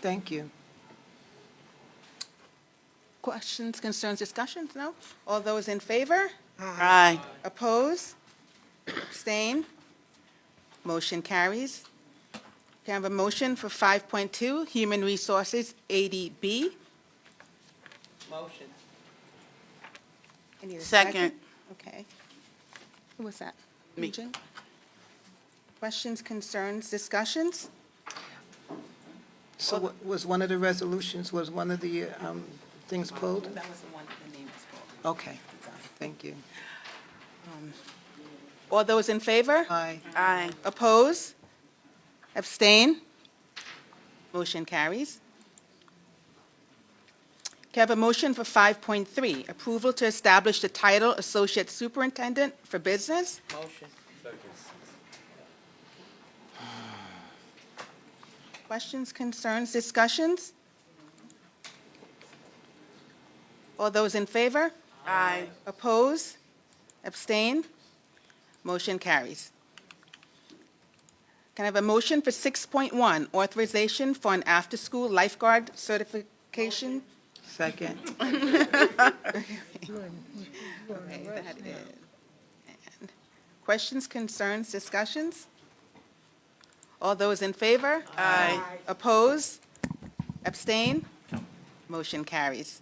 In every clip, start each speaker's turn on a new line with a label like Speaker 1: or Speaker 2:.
Speaker 1: Thank you. Questions, concerns, discussions? No? All those in favor?
Speaker 2: Aye.
Speaker 1: Oppose? Abstain? Motion carries. Can I have a motion for 5.2, Human Resources, ADB?
Speaker 3: Motion.
Speaker 1: I need a
Speaker 2: Second.
Speaker 1: Okay. Who was that?
Speaker 2: Me.
Speaker 1: Jane? Questions, concerns, discussions?
Speaker 4: So wa- was one of the resolutions, was one of the um, things pulled?
Speaker 3: That was the one, the name was called.
Speaker 4: Okay, thank you.
Speaker 1: All those in favor?
Speaker 4: Aye.
Speaker 2: Aye.
Speaker 1: Oppose? Abstain? Motion carries. Can I have a motion for 5.3, approval to establish the title Associate Superintendent for Business?
Speaker 3: Motion.
Speaker 1: Questions, concerns, discussions? All those in favor?
Speaker 2: Aye.
Speaker 1: Oppose? Abstain? Motion carries. Can I have a motion for 6.1, authorization for an after-school lifeguard certification?
Speaker 4: Second.
Speaker 1: Okay, that is- and Questions, concerns, discussions? All those in favor?
Speaker 2: Aye.
Speaker 1: Oppose? Abstain? Motion carries.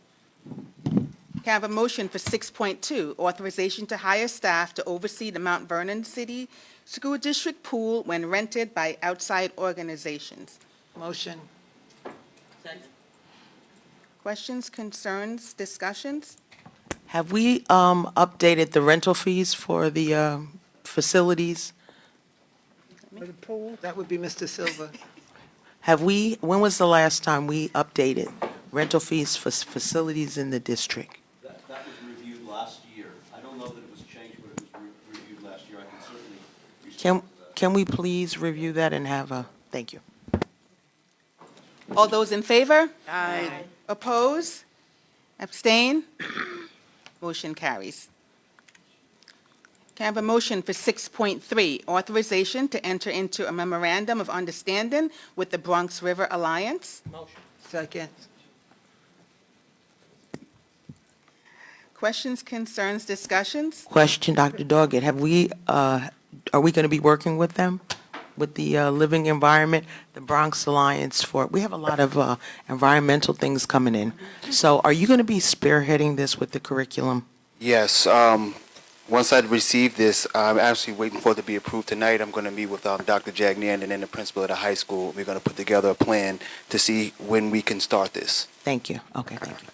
Speaker 1: Can I have a motion for 6.2, authorization to hire staff to oversee the Mount Vernon City School District pool when rented by outside organizations?
Speaker 4: Motion.
Speaker 3: Second.
Speaker 1: Questions, concerns, discussions?
Speaker 5: Have we um, updated the rental fees for the um, facilities?
Speaker 4: That would be Mr. Silva.
Speaker 5: Have we, when was the last time we updated rental fees for s- facilities in the district?
Speaker 6: That, that was reviewed last year. I don't know that it was changed, but it was re- reviewed last year. I can certainly
Speaker 5: Can,
Speaker 6: respond to that.
Speaker 5: can we please review that and have a, thank you.
Speaker 1: All those in favor?
Speaker 2: Aye.
Speaker 1: Oppose? Abstain? Motion carries. Can I have a motion for 6.3, authorization to enter into a memorandum of understanding with the Bronx River Alliance?
Speaker 3: Motion.
Speaker 4: Second.
Speaker 1: Questions, concerns, discussions?
Speaker 5: Question, Dr. Doggett, have we, uh, are we going to be working with them? With the uh, Living Environment, the Bronx Alliance for, we have a lot of uh, environmental things coming in. So are you going to be spearheading this with the curriculum?
Speaker 7: Yes, um, once I'd received this, I'm actually waiting for it to be approved tonight. I'm gonna meet with, um, Dr. Jagnan and then the principal of the high school. We're gonna put together a plan to see when we can start this.
Speaker 5: Thank you. Okay, thank you.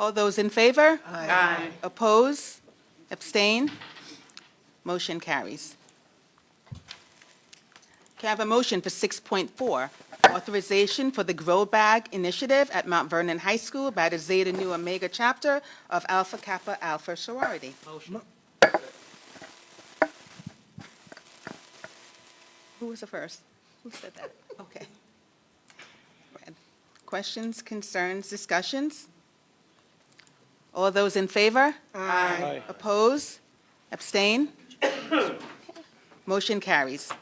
Speaker 1: All those in favor?
Speaker 2: Aye.
Speaker 1: Oppose? Abstain? Motion carries. Can I have a motion for 6.4, authorization for the Grow Bag Initiative at Mount Vernon High School by the Zeta Nu Omega Chapter of Alpha Kappa Alpha Sorority?
Speaker 3: Motion.
Speaker 1: Who was the first? Who said that? Okay. Red. Questions, concerns, discussions? All those in favor? Aye. Oppose? Abstain? Motion carries.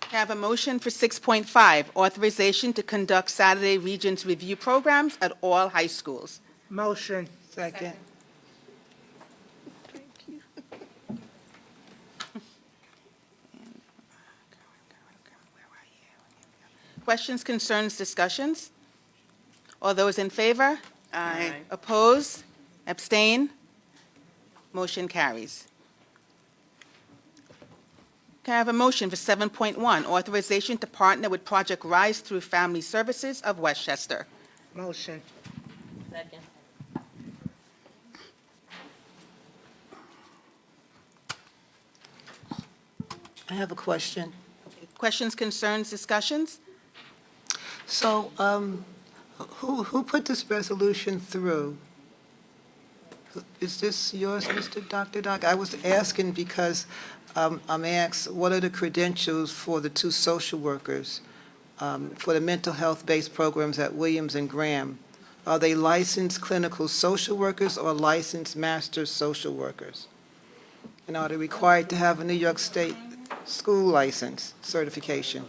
Speaker 1: Can I Have a motion for 6.5, authorization to conduct Saturday Regents Review programs at all high schools.
Speaker 4: Motion. Second.
Speaker 1: Questions, concerns, discussions? All those in favor?
Speaker 2: Aye.
Speaker 1: Oppose? Abstain? Motion carries. Can I have a motion for 7.1, authorization to partner with Project Rise through Family Services of Westchester?
Speaker 4: Motion.
Speaker 3: Second.
Speaker 4: I have a question.
Speaker 1: Questions, concerns, discussions?
Speaker 4: So, um, who, who put this resolution through? Is this yours, Mr. Dr. Doc? I was asking because um, I'm asked, what are the credentials for the two social workers um, for the mental health-based programs at Williams and Graham? Are they licensed clinical social workers or licensed master social workers? And are they required to have a New York State school license certification?